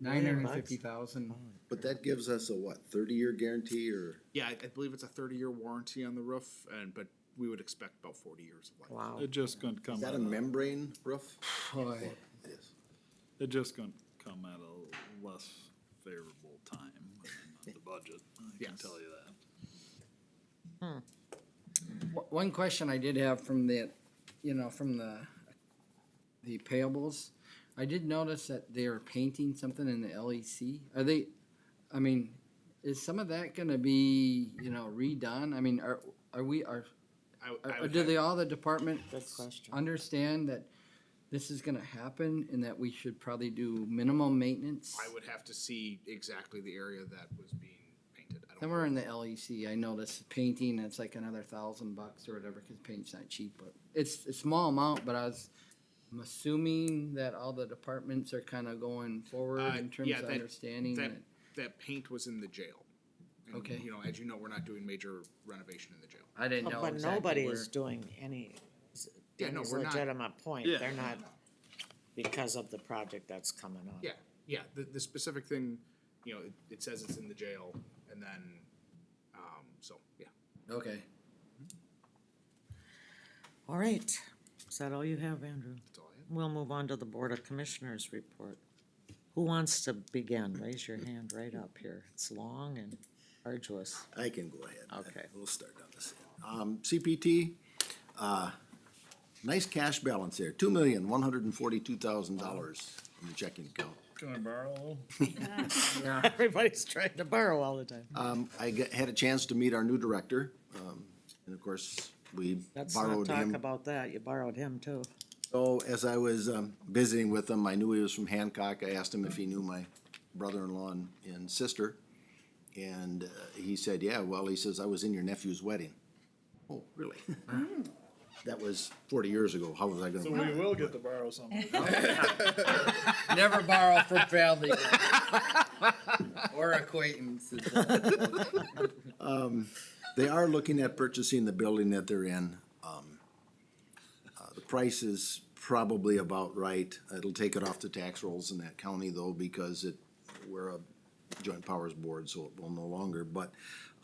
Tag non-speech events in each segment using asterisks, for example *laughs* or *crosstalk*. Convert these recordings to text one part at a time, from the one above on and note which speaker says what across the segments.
Speaker 1: nine hundred and fifty thousand.
Speaker 2: But that gives us a what, thirty-year guarantee or?
Speaker 3: Yeah, I, I believe it's a thirty-year warranty on the roof, and but we would expect about forty years of life.
Speaker 4: Wow.
Speaker 5: It just gonna come.
Speaker 2: Is that
Speaker 5: at
Speaker 2: a membrane roof?
Speaker 1: Boy,
Speaker 2: It is.
Speaker 5: It just gonna come at a less favorable time than the budget, I can
Speaker 3: Yes.
Speaker 5: tell you that.
Speaker 1: o- one question I did have from the, you know, from the, the payables. I did notice that they are painting something in the LEC. Are they, I mean, is some of that gonna be, you know, redone? I mean, are, are we, are,
Speaker 3: I, I
Speaker 1: are
Speaker 3: would
Speaker 1: do
Speaker 3: have-
Speaker 1: they, all the departments
Speaker 4: Good question.
Speaker 1: understand that this is gonna happen and that we should probably do minimum maintenance?
Speaker 3: I would have to see exactly the area that was being painted. I don't
Speaker 1: Somewhere
Speaker 3: know.
Speaker 1: in the LEC, I noticed painting, it's like another thousand bucks or whatever, cause paint's not cheap, but it's a small amount, but I was, I'm assuming that all the departments are kinda going forward
Speaker 3: Uh,
Speaker 1: in terms
Speaker 3: yeah,
Speaker 1: of
Speaker 3: that-
Speaker 1: understanding
Speaker 3: that-
Speaker 1: it.
Speaker 3: That paint was in the jail. And,
Speaker 1: Okay.
Speaker 3: You know, as you know, we're not doing major renovation in the jail.
Speaker 1: I didn't know
Speaker 4: But
Speaker 1: exactly
Speaker 4: nobody
Speaker 1: where.
Speaker 4: is doing any,
Speaker 3: Yeah, no,
Speaker 4: Danny's
Speaker 3: we're not-
Speaker 4: legitimate point,
Speaker 5: Yeah.
Speaker 4: they're not, because of the project that's coming up.
Speaker 3: Yeah, yeah, the, the specific thing, you know, it, it says it's in the jail, and then, um, so, yeah.
Speaker 1: Okay,
Speaker 4: All right, is that all you have, Andrew?
Speaker 3: That's all I have.
Speaker 4: We'll move on to the Board of Commissioners report. Who wants to begin? Raise your hand right up here. It's long and arduous.
Speaker 2: I can go ahead.
Speaker 4: Okay.
Speaker 2: We'll start on this. Um, CPT, uh, nice cash balance there, two million, one hundred and forty-two thousand dollars in the checking account.
Speaker 5: Can I borrow?
Speaker 4: *laughs* Everybody's trying to borrow all the time.
Speaker 2: Um, I got- had a chance to meet our new director, um, and of course, we
Speaker 4: Let's not
Speaker 2: borrowed
Speaker 4: talk
Speaker 2: him.
Speaker 4: about that, you borrowed him too.
Speaker 2: So as I was, um, visiting with him, I knew he was from Hancock. I asked him if he knew my brother-in-law and, and sister. And, uh, he said, yeah, well, he says, I was in your nephew's wedding. Oh, really? That was forty years ago. How was I gonna? remember?
Speaker 5: will get to borrow something.
Speaker 1: never borrow from
Speaker 4: *laughs*
Speaker 1: family. Or acquaintances.
Speaker 2: They are looking at purchasing the building that they're in. Um, uh, The price is probably about right. It'll take it off the tax rolls in that county though, because it, we're a joint powers board, so it will no longer. But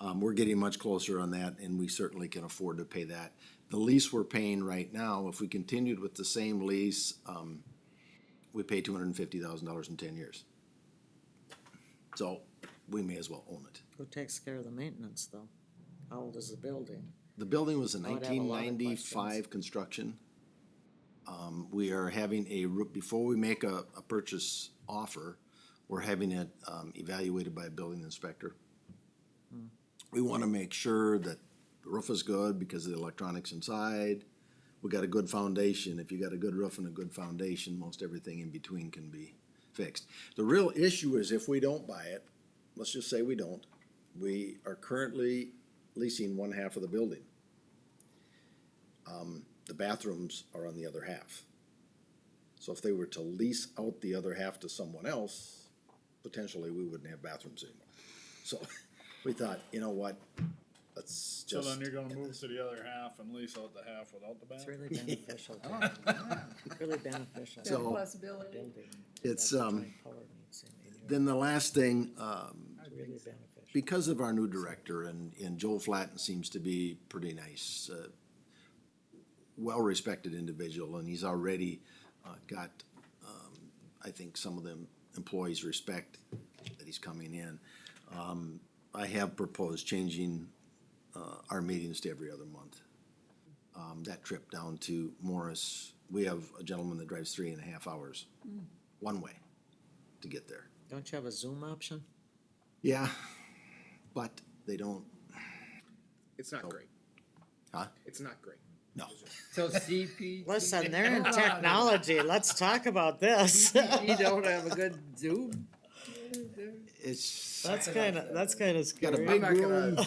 Speaker 2: um, we're getting much closer on that and we certainly can afford to pay that. The lease we're paying right now, if we continued with the same lease, um, we pay two hundred and fifty thousand dollars in ten years. So we may as well own it.
Speaker 4: Who takes care of the maintenance though? How old is the building?
Speaker 2: The building was a
Speaker 4: I would have a
Speaker 2: nineteen
Speaker 4: lot of
Speaker 2: ninety-five construction. Um, we are having a, roo- before we make a, a purchase offer, we're having it, um, evaluated by a building inspector.
Speaker 4: Hmm.
Speaker 2: We wanna make sure that the roof is good because of the electronics inside. We got a good foundation. If you got a good roof and a good foundation, most everything in between can be fixed. The real issue is if we don't buy it, let's just say we don't, we are currently leasing one half of the building. Um, the bathrooms are on the other half. So if they were to lease out the other half to someone else, potentially we wouldn't have bathrooms anymore. So *laughs* we thought, you know what, let's
Speaker 5: So
Speaker 2: just.
Speaker 5: then you're gonna move to the other half and lease out the half without the
Speaker 4: It's *laughs*
Speaker 5: bathroom?
Speaker 4: really beneficial. to- Really beneficial.
Speaker 2: So-
Speaker 6: Possibility.
Speaker 4: Building. That's
Speaker 2: It's,
Speaker 4: the
Speaker 2: um,
Speaker 4: joint power meets in here.
Speaker 2: Then the last thing, um,
Speaker 4: It's really beneficial.
Speaker 2: because of our new director and, and Joel Flatten seems to be pretty nice, uh, well-respected individual, and he's already, uh, got, um, I think some of them employees respect that he's coming in. Um, I have proposed changing, uh, our meetings to every other month. Um, that trip down to Morris, we have a gentleman that drives three and a half hours, one way, to get there.
Speaker 4: Don't you have a Zoom option?
Speaker 2: Yeah, but they don't,
Speaker 3: It's not great.
Speaker 2: huh?
Speaker 3: It's not great.
Speaker 2: No.
Speaker 1: So CP.
Speaker 4: *laughs* Listen, they're in technology, let's talk about *laughs* this.
Speaker 1: You don't have a good Zoom?
Speaker 2: It's
Speaker 4: That's kinda, that's kinda
Speaker 2: got a
Speaker 4: scary.
Speaker 2: big room.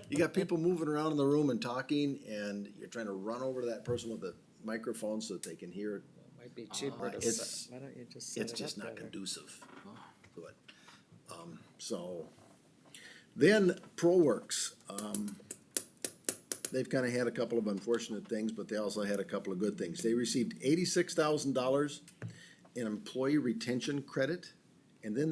Speaker 4: *laughs*
Speaker 2: You got people moving around in the room and talking, and you're trying to run over to that person with a microphone so that they can hear. it.
Speaker 4: Might be cheaper to
Speaker 2: it's-
Speaker 4: set, why don't you just set it
Speaker 2: It's
Speaker 4: up
Speaker 2: just not
Speaker 4: better?
Speaker 2: conducive. to it. um, so, then ProWorks, um, they've kind of had a couple of unfortunate things, but they also had a couple of good things. They received eighty-six thousand dollars in employee retention credit And then